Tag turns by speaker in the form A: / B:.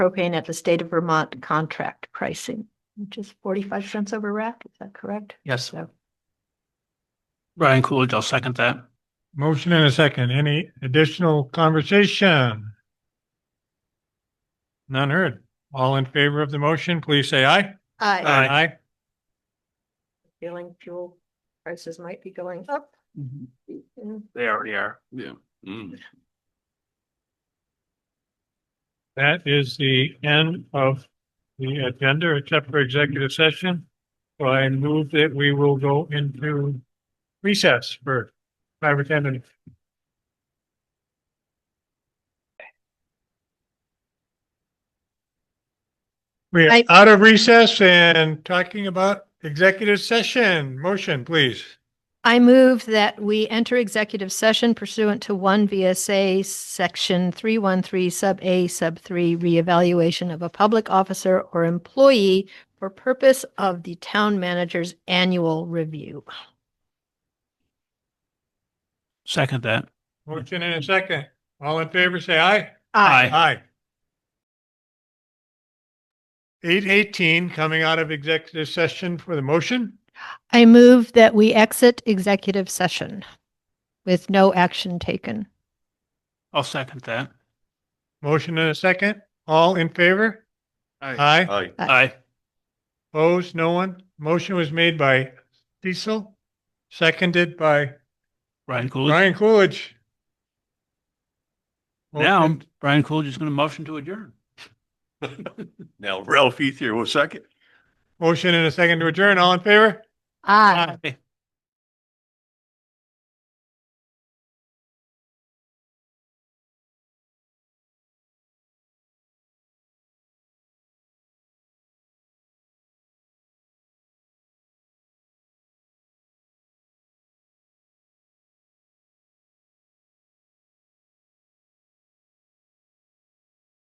A: propane at the state of Vermont contract pricing, which is forty-five cents over rack. Is that correct?
B: Yes.
A: So-
B: Brian Coolidge, I'll second that.
C: Motion and a second. Any additional conversation? None heard. All in favor of the motion, please say aye.
A: I
B: Aye.
A: feeling fuel prices might be going up. Mm,
B: They already are.
D: Yeah. Mm.
C: That is the end of the agenda, except for executive session. So I move that we will go into recess for five or ten minutes. We are
A: I-
C: out of recess and talking about executive session. Motion, please.
A: I move that we enter executive session pursuant to one VSA section three one three sub A sub three reevaluation of a public officer or employee for purpose of the town manager's annual review.
B: Second that.
C: Motion in a second. All in favor, say aye.
B: Aye.
C: Aye. Eight eighteen, coming out of executive session for the motion.
A: I move that we exit executive session with no action taken.
B: I'll second that.
C: Motion and a second. All in favor? Aye.
D: Aye.
B: Aye.
C: Opposed? No one? Motion was made by Cecil, seconded by
B: Brian Coolidge.
C: Brian Coolidge.
B: Now,
C: Motion-
B: Brian Coolidge is going to motion to adjourn.
D: Now Ralph Ethier will second.
C: Motion and a second to adjourn. All in favor?
A: Aye.
B: Aye.